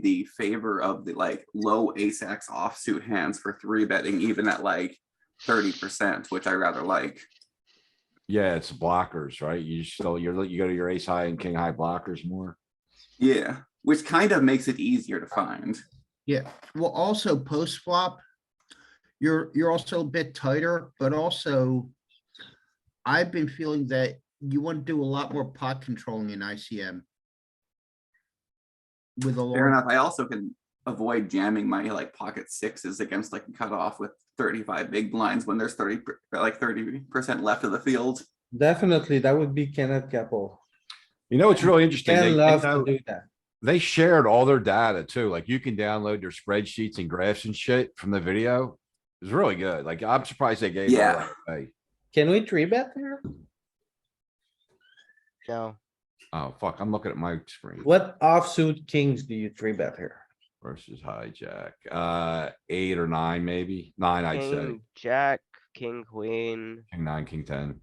the favor of the like low ace x offsuit hands for three betting even at like thirty percent, which I rather like. Yeah, it's blockers, right? You just, so you're, you go to your ace high and king high blockers more. Yeah, which kind of makes it easier to find. Yeah, well, also post flop, you're, you're also a bit tighter, but also I've been feeling that you want to do a lot more pot controlling in ICM. With a Fair large enough. I also can avoid jamming my like pocket sixes against like a cutoff with thirty-five big blinds when there's thirty, per- like thirty percent left of the field. Definitely, that would be Kenneth Capel. You know, it's really interesting. They- Ken loves to They do that. they shared all their data too. Like you can download their spreadsheets and graphs and shit from the video. It's really good. Like I'm surprised they gave. it Yeah. away. Can we three bet there? No, Oh, fuck, I'm looking at my screen What offsuit kings do you three bet here? versus hijack. Uh, eight or nine, maybe nine, I'd say. king, jack, king, queen. King nine, king ten,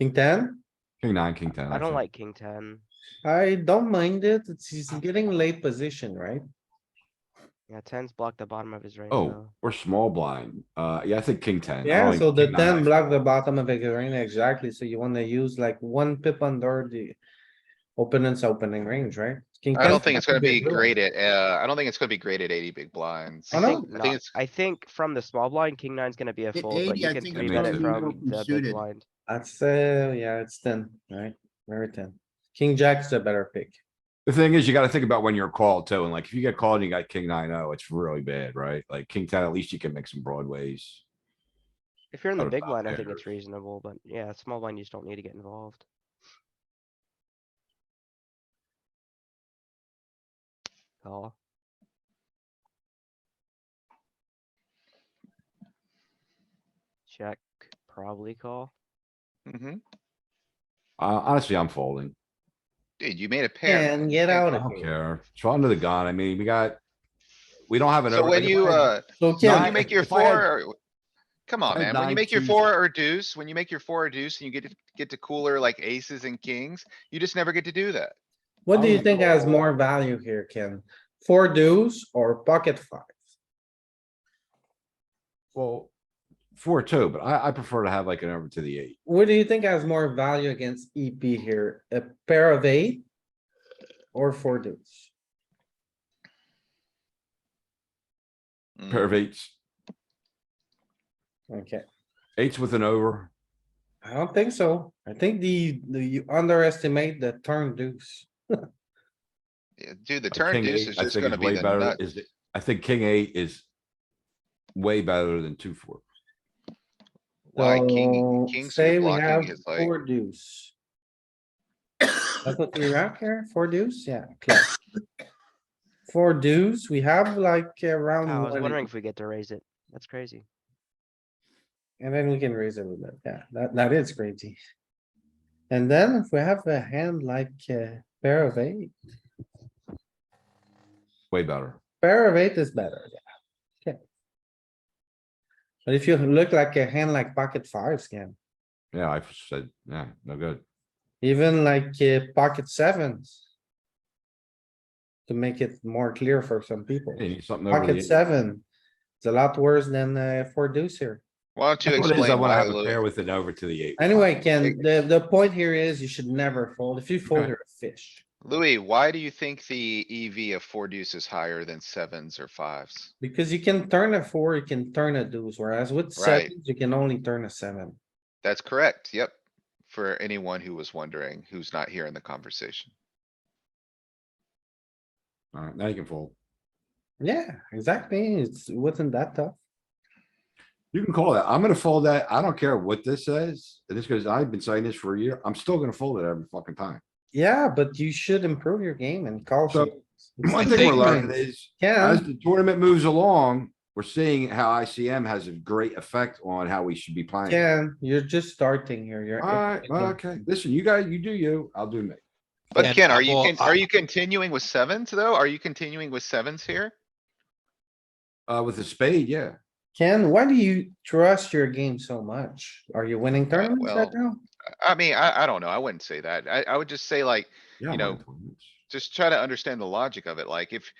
King ten? king nine, king ten. I don't think. like king ten. I don't mind it. It's, he's getting late position, right? Yeah, ten's blocked the bottom of his range. Oh, though. or small blind. Uh, yeah, I think king ten. I Yeah, don't so even- the king nine, ten I block think. the bottom of the range, exactly. So you wanna use like one pip under the opponent's opening range, right? King I don't ten think it's has gonna to be a great at, uh, I don't think it's gonna be great at eighty big blinds. I I know. think, I not- think it's, I think from the small blind, king nine's gonna be a Hit fold, but 80, you I can think three it's bet gonna it be from open the big suited. blind. That's, uh, yeah, it's ten, right? Very ten. King jack's the better pick. The thing is, you gotta think about when you're called too, and like if you get called and you got king nine oh, it's really bad, right? Like king ten, at least you can make some broadways. If you're in the Out of big bounds blind, I think errors. it's reasonable, but yeah, small blind, you just don't need to get involved. Call. Check, probably call. Mhm. Uh, honestly, I'm folding. dude, you made a pair. And get Okay. out I of don't here. care. It's under the gun. I mean, we got. We don't have an. So over- when you, uh, So when Yeah, you Ken, make your if I had- four, or- come I on, had man, when nine you make your twos- four or deuce, when you make your four or deuce and you get to, get to cooler like aces and kings, you just never get to do that. what do you Oh. think has more value here, Ken? Four deuce or pocket five? Well, four, two, but I, I prefer to have like an over to the eight. What do you think has more value against EP here? A pair of eight? Or four deuce? Pair Mm. of eights, Okay, eights with an over. I don't think so. I think the, the, you underestimate the turn deuce. Yeah, Dude, the a turn king deuce eight, is I just think gonna is way be the better- nut. is- I think king eight is. Way better than two, four. Why king, So, king say suited we have blocking is like, Four deuce. That's what we have here, four deuce, yeah. close. Four deuce, we have like around. I was one- wondering if we get to raise it. That's crazy. And then we can raise it with it, yeah, that, that is crazy. And then if we have a hand like a pair of eight, Way better. pair of eight is better, yeah. Okay. But if you look like a hand like pocket fives can, Yeah, I said, yeah, no good. even like uh, pocket sevens. To make it more clear for some people, You need something over the. pocket eight. seven, it's a lot worse than uh, four deuce here. why don't you That's what it is. I explain wanna why, have a pair Louis? with an over to the eight. Anyway, Ken, the, the point here is you should never fold. If you fold, Okay. you're a fish. Louis, why do you think the EV of four deuce is higher than sevens or fives? Because you can turn a four, you can turn a deuce, whereas with Right. sevens, you can only turn a seven. That's correct, yep. For anyone who was wondering, who's not here in the conversation. Alright, now you can fold. Yeah, exactly. It's, it wasn't that tough. You can call that. I'm gonna fold that. I don't care what this says. This goes, I've been saying this for a year. I'm still gonna fold it every fucking time. Yeah, but you should improve your game and call. So, some- It's One the thing we're big learning lines. is, Yeah, as the tournament moves along, we're seeing how ICM has a great effect on how we should be playing. Ken, you're just starting here. You're. Alright, well, okay. Listen, you guys, you do you, I'll do me. But Ken, are you, con- are you continuing with sevens though? Are you continuing with sevens here? Uh, with a spade, yeah. Ken, why do you trust your game so much? Are you winning tournaments right now? I- I mean, I, I don't know. I wouldn't say that. I, I would just say like, Yeah, You I'm on know, tournaments. just try to understand the logic of it. Like if